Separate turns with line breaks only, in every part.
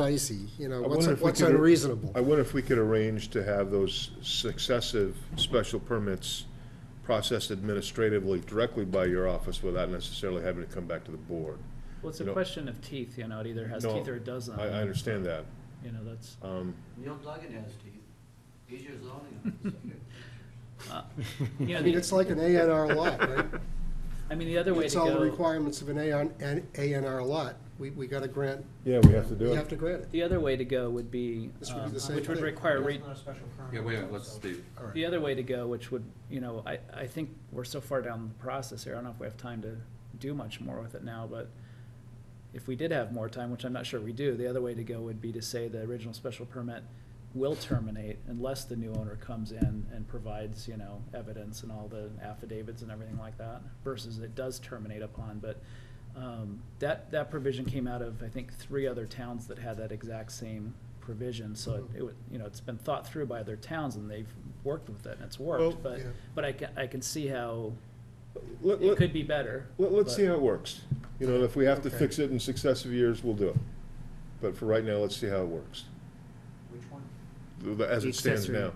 dicey, you know,
I
Uh, what's,
wonder if we
what's
could-
unreasonable?
I wonder if we could arrange to have those successive special permits processed administratively directly by your office without necessarily having to come back to the board.
Well, it's
You
a
know-
question of teeth, you know, it either has
No,
teeth or it doesn't.
I, I understand that.
You know, that's,
Um,
Neil Duggan has teeth. He's your zoning officer.
uh, you know,
I mean,
the,
it's like an A and R lot, right?
I mean, the other way to
It's all the
go,
requirements of an A on, an A and R lot. We, we gotta grant,
yeah, we have to
we have to grant it.
the other way to go would be,
This would be
um,
the same
which would
thing.
require, re-
Yeah, wait a minute, let's, Steve,
All right.
the other way to go, which would, you know, I, I think we're so far down the process here, I don't know if we have time to do much more with it now, but if we did have more time, which I'm not sure we do, the other way to go would be to say the original special permit will terminate unless the new owner comes in and provides, you know, evidence and all the affidavits and everything like that, versus it does terminate upon, but, um, that, that provision came out of, I think, three other towns that had that exact same provision, so
Mm-hmm.
it- it, would- you know, it's been thought through by other towns and they've worked with it and it's
Well,
worked, but,
yeah.
but I can, I can see how
Let,
it
let,
could be better.
let- let's
but-
see how it works. You know, if we have to
Okay.
fix it in successive years, we'll do it. But for right now, let's see how it works,
Which one?
th- as it stands
Accessory.
now.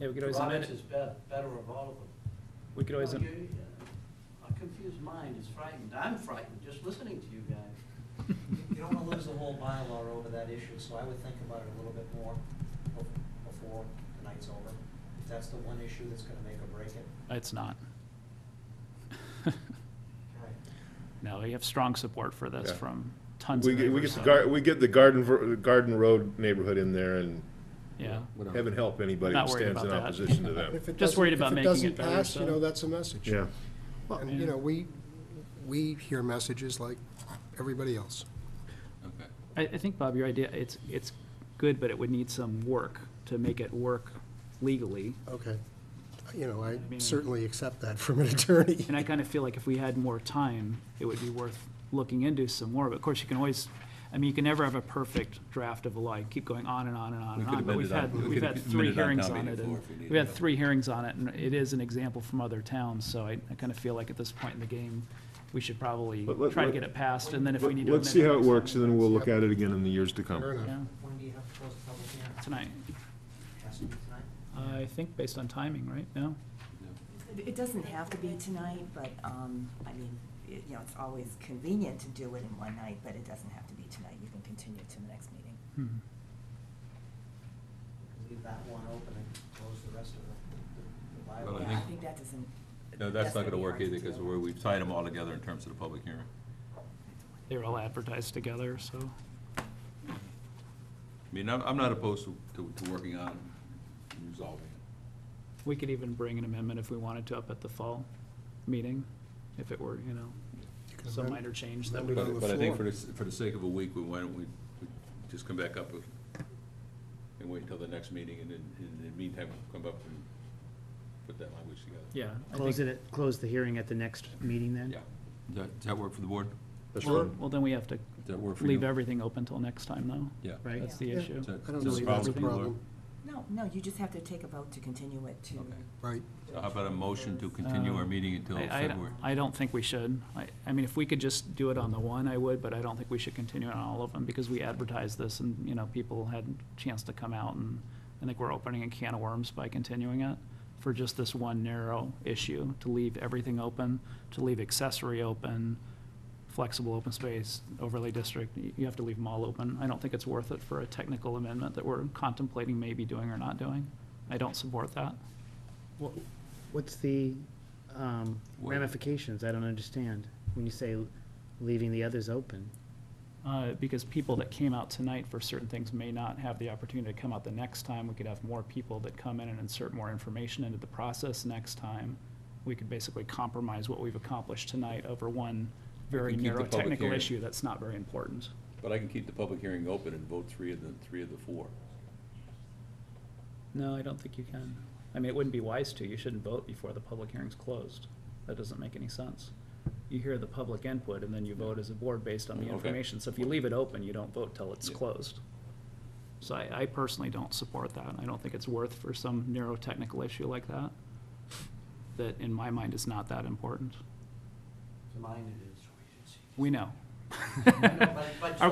Yeah, we could always amend
Roberts
it,
is bet- better of all of them.
we could always,
No,
am-
you- uh, A confused mind is frightened. I'm frightened just listening to you guys.
You don't wanna lose the whole bylaw over that issue, so I would think about it a little bit more bef- before the night's over. If that's the one issue that's gonna make or break it.
it's not.
Right.
No, we have strong support for this
Yeah.
from tons
We
of
get, we
neighbors.
get the
so-
gar, we get the Garden, Ver- Garden Road neighborhood in there and
Yeah,
we're not-
heaven help anybody
Not
that
worried
stands in
about that.
opposition to that.
If it
Just worried
doesn't-
about making it
If it
better,
doesn't pass,
so-
you know, that's a message.
Yeah.
And, you know, we, we hear messages like everybody else.
okay.
I, I think, Bob, your idea, it's, it's good, but it would need some work to make it work legally.
Okay. You know, I
mean-
certainly accept that from an attorney.
And I kind of feel like if we had more time, it would be worth looking into some more. But of course, you can always, I mean, you can never have a perfect draft of a law. You keep going on and on and on
We
and
could
on. But
amend
we've
it on-
had,
we
we've
could
had
amend
three
it on
hearings
town
on
meeting
it. and
floor if we needed
We've had
to.
three hearings on it, and it is an example from other towns. So I, I kind of feel like at this point in the game, we should probably
But let-
try to
let-
get it passed, and then if we need to.
Let's
amend
see how it
next time,
works, and then we'll look
Yep.
at it again in the years to
Fair
come.
enough.
Yeah,
When do you have to close the public hearing?
tonight.
Has to be tonight?
I think based on timing, right? No?
It doesn't have to be tonight, but, um, I mean, it, you know, it's always convenient to do it in one night, but it doesn't have to be tonight. You can continue to the next meeting.
Hmm.
Leave that one open and close the rest of the- the,
Well,
the
I
bylaw.
Yeah, I
think-
think that doesn't.
No, that's not gonna
be
work
hard to
either, because
do.
we're, we've tied them all together in terms of the public hearing.
They were all advertised together, so.
I mean, I'm, I'm not opposed to, to, to working on it and resolving it.
We could even bring an amendment if we wanted to up at the fall meeting, if it were, you know,
can
some
amend-
minor change that
amend
would.
it on the
But I think for
floor.
the, s- for the sake of a week, we, why don't we, we just come back up with- and wait until the next meeting, and then, in the meantime, we'll come up and put that language together.
Yeah. I
Close
think-
it, at- close the hearing at the next meeting then?
Yeah. Does that, does that work for the board?
That's
Well,
right.
Well, then we have to
Does that work for you?
leave everything open till next time, though.
Yeah.
Right?
That's the
Yeah.
issue.
Is that-
I don't
is that
believe that's a
for you, Laura?
problem,
No, no, you just have to take a vote to continue it to.
Okay.
right?
So how about a motion to continue our meeting until
Uh, Um, I- I-
February?
I don't think we should. I, I mean, if we could just do it on the one, I would, but I don't think we should continue on all of them, because we advertised this, and, you know, people had a chance to come out, and I think we're opening a can of worms by continuing it for just this one narrow issue, to leave everything open, to leave accessory open, flexible open space, overlay district, y- you have to leave them all open. I don't think it's worth it for a technical amendment that we're contemplating maybe doing or not doing. I don't support that.
Wha- What's the um,
What?
ramifications? I don't understand, when you say leaving the others open.
Uh, because people that came out tonight for certain things may not have the opportunity to come out the next time. We could have more people that come in and insert more information into the process next time. We could basically compromise what we've accomplished tonight over one very
can keep the
narrow
public
technical
hearing.
issue that's not very important.
But I can keep the public hearing open and vote three of the, three of the four.
No, I don't think you can. I mean, it wouldn't be wise to. You shouldn't vote before the public hearing's closed. That doesn't make any sense. You hear the public input and then you vote as a board based on the
Okay.
information. So if you leave it open, you don't vote till it's
Yeah.
closed. So I, I personally don't support that. I don't think it's worth for some narrow technical issue like that, that in my mind is not that important.
To mine it is.
We know.
But- but-
Are